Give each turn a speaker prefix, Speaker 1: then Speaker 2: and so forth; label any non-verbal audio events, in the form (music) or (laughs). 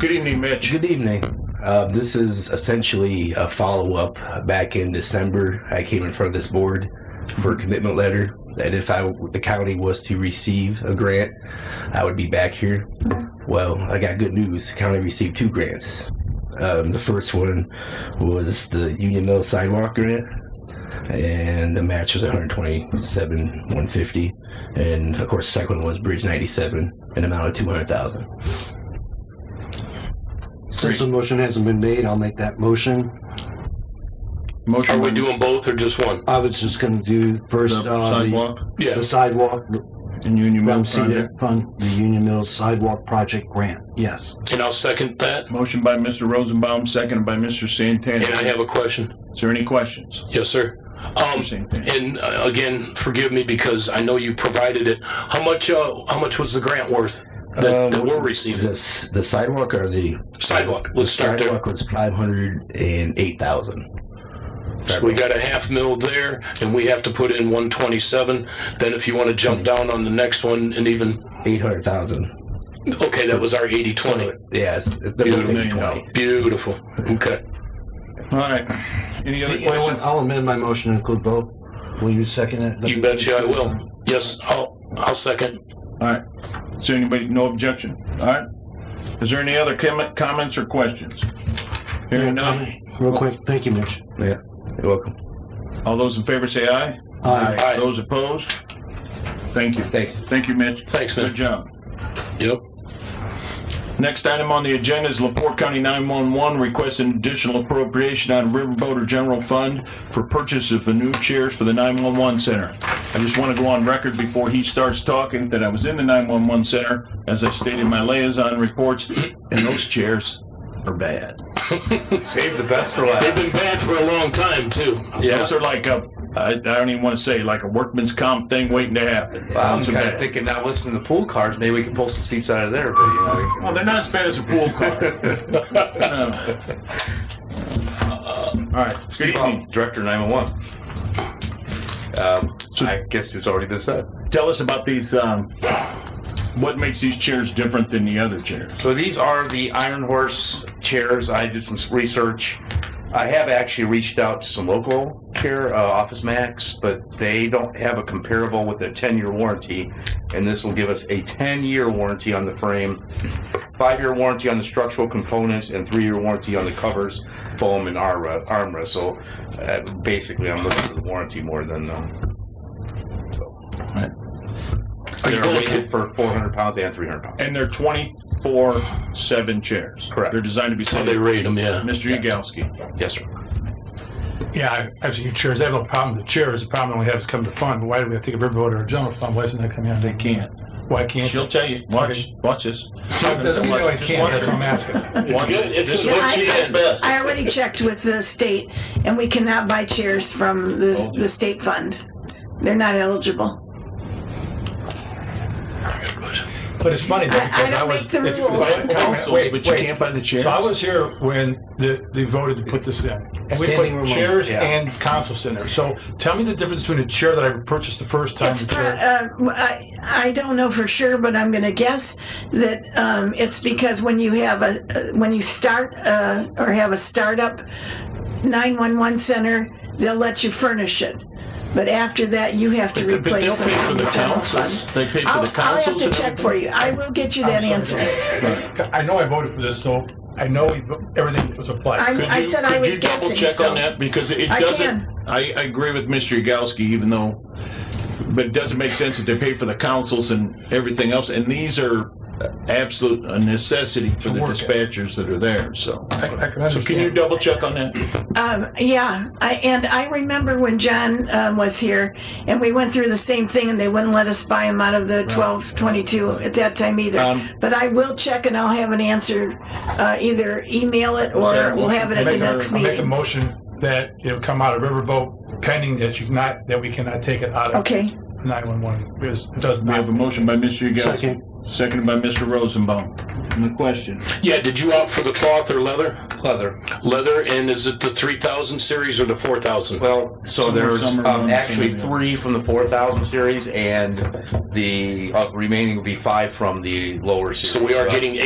Speaker 1: Good evening, Mitch.
Speaker 2: Good evening. Uh, this is essentially a follow up. Back in December, I came in front of this board for a commitment letter that if I, the county was to receive a grant, I would be back here. Well, I got good news. The county received two grants. Um, the first one was the Union Mill sidewalk grant, and the match was 127 150 and of course the second one was bridge 97 an amount of 200000
Speaker 3: Since the motion hasn't been made, I'll make that motion.
Speaker 4: Are
Speaker 1: Motion
Speaker 4: we
Speaker 1: to
Speaker 4: doing both or just one?
Speaker 3: I was just gonna do
Speaker 1: the
Speaker 3: first, uh, the-
Speaker 1: sidewalk
Speaker 4: Yeah.
Speaker 3: the sidewalk,
Speaker 1: in Union Mill
Speaker 3: from CDEG
Speaker 1: project.
Speaker 3: fund, the Union Mills Sidewalk Project Grant, yes.
Speaker 4: And I'll second that.
Speaker 1: Motion by Mr. Rosenbaum, seconded by Mr. Santana.
Speaker 4: And I have a question.
Speaker 1: Is there any questions?
Speaker 4: Yes, sir. Um,
Speaker 1: Mr. Santana.
Speaker 4: and uh, again, forgive me because I know you provided it. How much? Uh, how much was the grant worth
Speaker 1: Um,
Speaker 4: that, that we're
Speaker 2: the,
Speaker 4: receiving?
Speaker 2: s- the sidewalk or the
Speaker 4: Sidewalk. Let's start there.
Speaker 2: sidewalk was 508000
Speaker 4: So we got a half mil there, and we have to put in 127. Then, if you want to
Speaker 1: Hmm.
Speaker 4: jump down on the next one, and even
Speaker 2: 800000
Speaker 4: okay, that was our 80 20.
Speaker 2: yeah it's, it's the
Speaker 1: Beautiful.
Speaker 2: 20
Speaker 4: Beautiful. Okay.
Speaker 1: All right. Any other
Speaker 3: You know what,
Speaker 1: questions?
Speaker 3: I'll amend my motion and include both. Will you second it?
Speaker 4: You betcha I will. Yes, I'll, I'll second.
Speaker 1: Is there anybody? No objection. All right. Is there any other com- comments or questions? Hearing none.
Speaker 3: Real quick, thank you, Mitch.
Speaker 2: you're welcome
Speaker 1: All those in favor say aye.
Speaker 3: Aye.
Speaker 4: Aye.
Speaker 1: Those opposed? Thank you.
Speaker 2: thanks
Speaker 1: Thank you, Mitch.
Speaker 4: Thanks,
Speaker 1: Good
Speaker 4: man.
Speaker 1: job.
Speaker 4: Yep.
Speaker 1: Next item on the agenda is Laporte County 911 requests an additional appropriation out of Riverboat or General Fund for purchase of the new chairs for the 911 center. I just want to go on record before he starts talking that I was in the 911 center, as I stated in my liaison reports, and those chairs are bad. Save the best for
Speaker 4: They've been bad for a long time, too. Yeah.
Speaker 1: Those are like a, I, I don't even want to say, like a workman's comp thing waiting to happen.
Speaker 5: Well, I was
Speaker 1: Those are
Speaker 5: kind
Speaker 1: bad.
Speaker 5: of thinking, not listening to pool cards, maybe we can pull some seats out of there. But you know,
Speaker 1: Well, they're not as bad as a pool
Speaker 5: (laughs)
Speaker 1: car. (laughs) No. Uh, All right. Good
Speaker 5: Steve,
Speaker 1: evening.
Speaker 5: I'm director 911. Um, I guess it's already been said.
Speaker 1: Tell us about these. Um, what makes these chairs different than the other chairs?
Speaker 5: So these are the Iron Horse chairs. I did some research. I have actually reached out to some local chair, uh, Office Max, but they don't have a comparable with a 10 year warranty. And this will give us a 10 year warranty on the frame, five year warranty on the structural components, and three year warranty on the covers, foam, and armre- armrest. So uh, basically, I'm looking for the warranty more than um, the. So.
Speaker 4: Are you
Speaker 5: They're
Speaker 4: going
Speaker 5: rated for 400 pounds and 300 pounds.
Speaker 1: And they're twenty-four-seven chairs.
Speaker 5: Correct.
Speaker 1: They're designed to be.
Speaker 4: How they rate them, yeah.
Speaker 1: Mr. Yagowski.
Speaker 5: Yes, sir.
Speaker 6: Yeah, I- I've seen chairs. I have no problem with the chairs. The problem I only have is come to fund. Why do we have to give Riverboat or a general fund? Why isn't that coming out?
Speaker 1: They can't.
Speaker 6: Why can't?
Speaker 1: She'll tell you. Watch. Watch this.
Speaker 6: Doesn't mean I
Speaker 1: Just watch
Speaker 6: can't. That's what I'm
Speaker 1: her.
Speaker 6: asking.
Speaker 4: It's
Speaker 1: Watch
Speaker 4: good.
Speaker 1: this.
Speaker 4: It's
Speaker 1: This is
Speaker 4: good.
Speaker 1: what she
Speaker 7: I-
Speaker 1: does best.
Speaker 7: I already checked with the state, and we cannot buy chairs from the, the state fund. They're not eligible.
Speaker 6: But it's funny though,
Speaker 7: I- I
Speaker 6: because
Speaker 7: don't
Speaker 6: I was.
Speaker 7: make the
Speaker 6: if-
Speaker 7: rules.
Speaker 6: wait, wait,
Speaker 1: Councils,
Speaker 6: wait,
Speaker 1: but you
Speaker 6: wait.
Speaker 1: can't buy the chairs.
Speaker 6: So I was here when the, they voted to put this in. And we
Speaker 3: Standing
Speaker 6: put
Speaker 3: room
Speaker 6: chairs
Speaker 3: only, yeah.
Speaker 6: and consoles in there. So tell me the difference between a chair that I purchased the first time.
Speaker 7: It's
Speaker 6: and
Speaker 7: pro-
Speaker 6: chair.
Speaker 7: uh, I, I don't know for sure, but I'm going to guess that um, it's because when you have a uh, when you start uh, or have a startup 911 center, they'll let you furnish it. But after that, you have to
Speaker 1: But they'll
Speaker 7: replace
Speaker 1: pay
Speaker 7: it
Speaker 1: for
Speaker 7: from
Speaker 1: the
Speaker 7: the general
Speaker 1: councils.
Speaker 7: fund.
Speaker 1: They pay for
Speaker 7: I'll,
Speaker 1: the
Speaker 7: I'll have
Speaker 1: councils.
Speaker 7: to
Speaker 1: and
Speaker 7: check for you. I will get you that
Speaker 6: sorry,
Speaker 7: answer.
Speaker 6: I know I voted for this, so I know we vo- everything was applied.
Speaker 7: I-
Speaker 1: Could
Speaker 7: I
Speaker 1: you-
Speaker 7: said I was
Speaker 1: Could you double
Speaker 7: guessing,
Speaker 1: check
Speaker 7: so-
Speaker 1: on that? Because it
Speaker 7: I
Speaker 1: doesn't,
Speaker 7: can.
Speaker 1: I, I agree with Mr. Yagowski, even though, but it doesn't make sense that they pay for the councils and everything else. And these are absolute a necessity for the
Speaker 6: work it.
Speaker 1: dispatchers that are there, so.
Speaker 6: I- I can
Speaker 1: So can you
Speaker 6: understand.
Speaker 1: double check on that?
Speaker 7: Um, yeah, I, and I remember when John um, was here, and we went through the same thing, and they wouldn't let us buy him out of the twelve twenty two at that time either.
Speaker 1: Um,
Speaker 7: but I will check, and I'll have an answer. Uh, either email it, or
Speaker 1: Sarah,
Speaker 7: we'll
Speaker 1: motion
Speaker 7: have it
Speaker 1: to
Speaker 7: at the
Speaker 6: Make a-
Speaker 7: next
Speaker 6: I'll make a
Speaker 7: meeting.
Speaker 6: motion that it'll come out of Riverboat pending that you not, that we cannot take it out of
Speaker 7: Okay.
Speaker 6: 911. because It does
Speaker 1: We
Speaker 6: not.
Speaker 1: have a motion by Mr. Yagowski,
Speaker 3: Second,
Speaker 1: seconded by Mr. Rosenbaum. Any question?
Speaker 4: Yeah, did you opt for the cloth or leather?
Speaker 5: Leather.
Speaker 4: Leather, and is it the 3000 series or the 4000?
Speaker 5: Well, so
Speaker 1: Some are-
Speaker 5: there's
Speaker 1: some are
Speaker 5: um,
Speaker 1: ones,
Speaker 5: actually
Speaker 1: some are-
Speaker 5: three from the 4000 series, and the uh, remaining will be five from the lower series.
Speaker 4: So we are
Speaker 5: Uh,
Speaker 4: getting